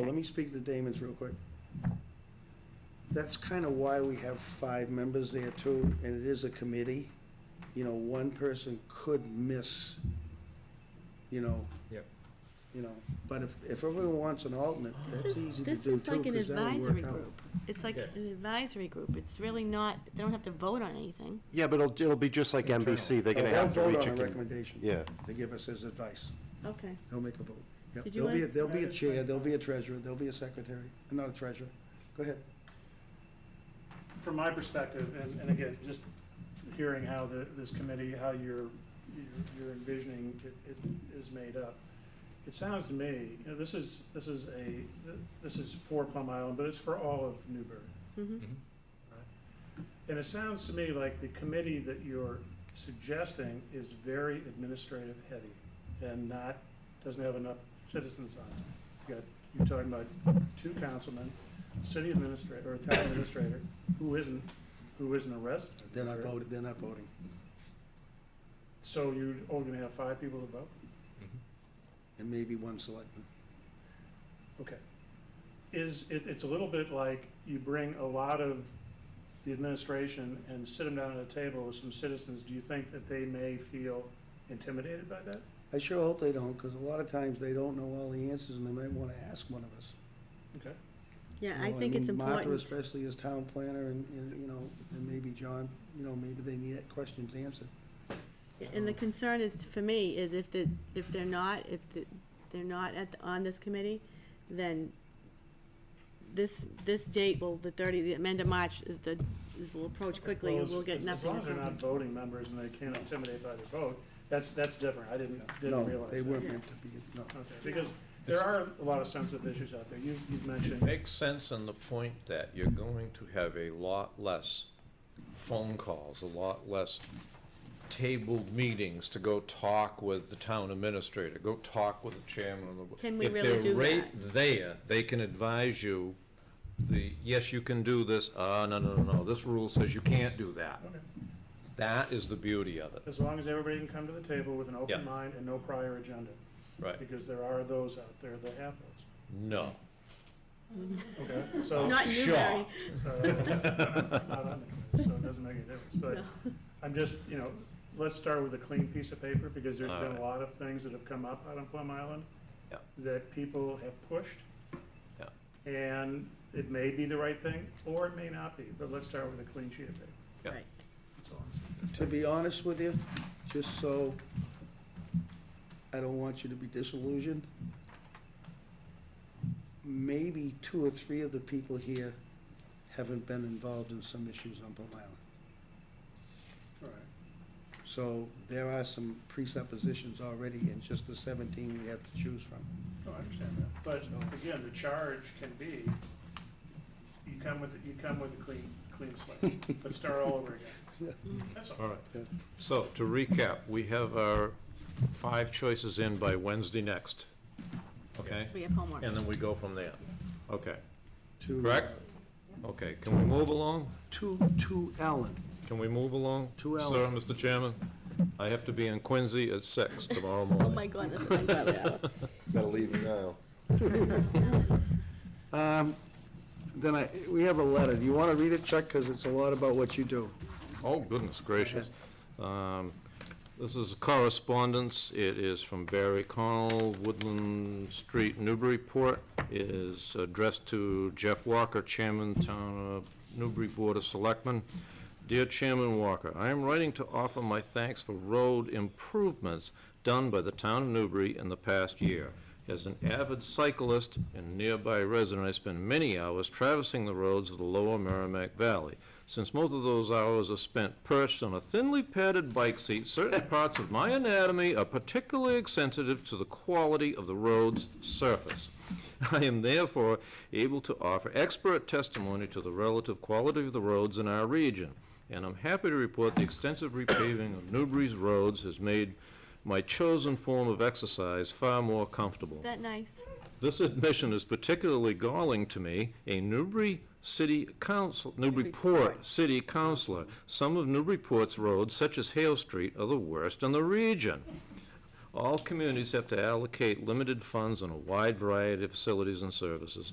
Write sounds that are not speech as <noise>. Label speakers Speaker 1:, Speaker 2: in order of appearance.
Speaker 1: Well, Let me speak to Damon's real quick. That's kind of why we have five members there too, and it is a committee. You know, one person could miss, you know.
Speaker 2: Yep.
Speaker 1: You know, but if, if everyone wants an alternate, that's
Speaker 3: This
Speaker 1: easy
Speaker 3: is,
Speaker 1: to do
Speaker 3: this
Speaker 1: too.
Speaker 3: is like an
Speaker 1: 'cause that'll work
Speaker 3: advisory
Speaker 1: out.
Speaker 3: group. It's like
Speaker 2: Yes.
Speaker 3: an advisory group. It's really not, they don't have to vote on anything.
Speaker 4: Yeah, but it'll, it'll be just like NBC, they're gonna
Speaker 1: Oh, They'll
Speaker 4: have to
Speaker 1: vote
Speaker 4: reach
Speaker 1: on a
Speaker 4: a, con-
Speaker 1: recommendation.
Speaker 4: yeah.
Speaker 1: They give us as advice.
Speaker 3: Okay.
Speaker 1: They'll make a vote. Yep.
Speaker 3: Did you
Speaker 1: There'll be, a-
Speaker 3: want-
Speaker 1: there'll be a chair, there'll be a treasurer, there'll be a secretary, not a treasurer. Go ahead.
Speaker 5: from my perspective, and, and again, just hearing how the, this committee, how you're, you're- you're envisioning it, it is made up, it sounds to me, you know, this is, this is a, this is for Plum Island, but it's for all of Newbury.
Speaker 3: Mhm.
Speaker 5: And it sounds to me like the committee that you're suggesting is very administrative heavy and not, doesn't have enough citizens on it. You got, you're talking about two councilmen, city administrator, or town administrator, who isn't, who isn't a resident.
Speaker 1: They're not voting, they're not voting.
Speaker 5: So you, oh, you're gonna have five people to vote?
Speaker 1: And maybe one selectman.
Speaker 5: Okay. Is, it, it's a little bit like you bring a lot of the administration and sit them down at a table with some citizens. Do you think that they may feel intimidated by that?
Speaker 1: I sure hope they don't, because a lot of times they don't know all the answers and they might want to ask one of us.
Speaker 5: Okay.
Speaker 3: Yeah,
Speaker 1: You
Speaker 3: I
Speaker 1: know,
Speaker 3: think it's
Speaker 1: mean, Martha
Speaker 3: important.
Speaker 1: especially as town planner and, and, you know, and maybe John, you know, maybe they need that question answered.
Speaker 3: And the concern is, for me, is if the, if they're not, if the- they're not at, the- on this committee, then this, this date will, the 30, the end of March is the, is- will approach quickly,
Speaker 5: Well,
Speaker 3: and
Speaker 5: as-
Speaker 3: we'll get
Speaker 5: as-
Speaker 3: nothing.
Speaker 5: As long as they're not voting members and they can't intimidate by their vote, that's, that's different. I didn't, didn't
Speaker 1: No,
Speaker 5: realize that.
Speaker 1: they weren't
Speaker 3: that.
Speaker 1: meant to be, no.
Speaker 5: Okay, because there are a lot of sensitive issues out there. You, you've mentioned,
Speaker 2: Makes sense on the point that you're going to have a lot less phone calls, a lot less tabled meetings to go talk with the town administrator, go talk with the chairman of the.
Speaker 3: Can we really do
Speaker 2: If
Speaker 3: that?
Speaker 2: they're right there, they can advise you, the, yes, you can do this, uh, no, no, no, no, this rule says you can't do that.
Speaker 5: Okay.
Speaker 2: That is the beauty of it,
Speaker 5: as long as everybody can come to the table with an
Speaker 2: Yeah.
Speaker 5: open mind and no prior agenda,
Speaker 2: right?
Speaker 5: because there are those out there that have those.
Speaker 2: No.
Speaker 5: Okay, so.
Speaker 3: <laughs> Not
Speaker 2: Sure.
Speaker 3: Newbury.
Speaker 5: So, I'm not on the committee, so it doesn't make a difference, but I'm just, you know, let's start with a clean piece of paper, because there's been a
Speaker 2: Alright.
Speaker 5: lot of things that have come up out on Plum Island
Speaker 2: Yeah.
Speaker 5: that people have pushed.
Speaker 2: Yeah.
Speaker 5: And it may be the right thing, or it may not be, but let's start with a clean sheet of paper,
Speaker 2: Yeah.
Speaker 3: Right.
Speaker 5: that's all I'm saying.
Speaker 1: To be honest with you, just so, I don't want you to be disillusioned. Maybe two or three of the people here haven't been involved in some issues on Plum Island.
Speaker 5: All right.
Speaker 1: So there are some presuppositions already in just the 17 we have to choose from.
Speaker 5: No, I understand that. But again, the charge can be, you come with, you come with a clean, clean slate, but start all over
Speaker 2: <laughs>
Speaker 5: again. That's
Speaker 2: All
Speaker 5: all.
Speaker 2: right. So to recap, we have our five choices in by Wednesday next. Okay?
Speaker 3: We have homework.
Speaker 2: And then we go from there. Okay,
Speaker 1: To-
Speaker 2: correct? Okay, can we move along?
Speaker 1: To, to Allen.
Speaker 2: Can we move along?
Speaker 1: Two hours.
Speaker 2: Sir, Mr. Chairman, I have to be in Quincy at six tomorrow
Speaker 3: Oh,
Speaker 2: morning.
Speaker 3: my God, that's what
Speaker 5: <laughs>
Speaker 3: I'm glad of.
Speaker 4: Better leave now.
Speaker 1: Um, Then I, we have a letter. Do you want to read it, Chuck? Because it's a lot about what you do.
Speaker 2: Oh, goodness gracious. Um, This is correspondence. It is from Barry Connell, Woodland Street, Newburyport. It is addressed to Jeff Walker, Chairman, Town of Newbury Board of Selectmen. Dear Chairman Walker, I am writing to offer my thanks for road improvements done by the town of Newbury in the past year. As an avid cyclist and nearby resident, I spend many hours traversing the roads of the lower Merrimack Valley. Since most of those hours are spent perched on a thinly padded bike seat, certain parts of my anatomy are particularly sensitive to the quality of the road's surface. <laughs> I am therefore able to offer expert testimony to the relative quality of the roads in our region, and I'm happy to report the extensive repaving of Newbury's roads has made my chosen form of exercise far more comfortable.
Speaker 3: That nice.
Speaker 2: This admission is particularly galling to me, a Newbury City Council, Newburyport City Councilor. Some of Newburyport's roads, such as Hale Street, are the worst in the region. all communities have to allocate limited funds on a wide variety of facilities and services.